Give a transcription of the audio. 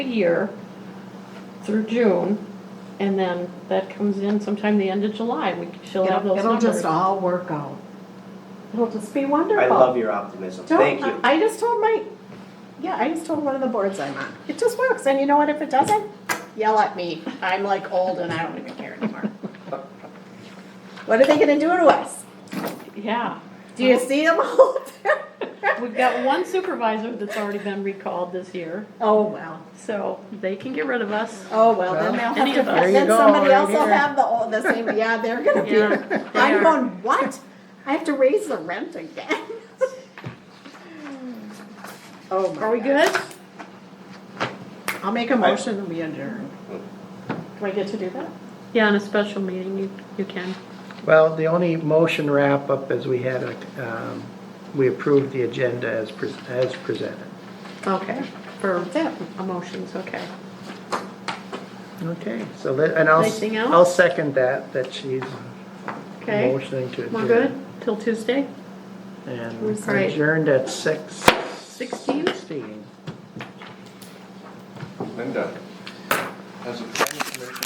a year through June, and then that comes in sometime the end of July, we, she'll have It'll those it'll numbers. just all work out. It'll just be wonderful. I love your optimism, Don't- thank you. I I just told my, yeah, I just told one of the boards I'm on, it just works, and you know what, if it doesn't, yell at me, I'm like old and I don't even care anymore. What are they gonna do to us? Yeah, Do Oh. you see them all there? we've got one supervisor that's already been recalled this year, Oh, well, so they can get rid of us. oh, well, then they'll Any of have us. to, There you then go, somebody right else will here. have the, old- the same, yeah, they're gonna be, Yeah, they I'm are. going, what? I have to raise the rent again? Oh, my Are we God. good? I'll make a motion and we adjourn. Do I get to do that? Yeah, in a special meeting, you, you can. Well, the only motion wrap-up is we had a, um, we approved the agenda as, pres- as presented. Okay, for That's emotions, okay. Okay, so that, and I'll, s- Anything else? I'll second that, that she's Okay, motioning to adjourn. we're good till Tuesday? And We're sorry. adjourned at six. 16? Sixteen. Linda, as a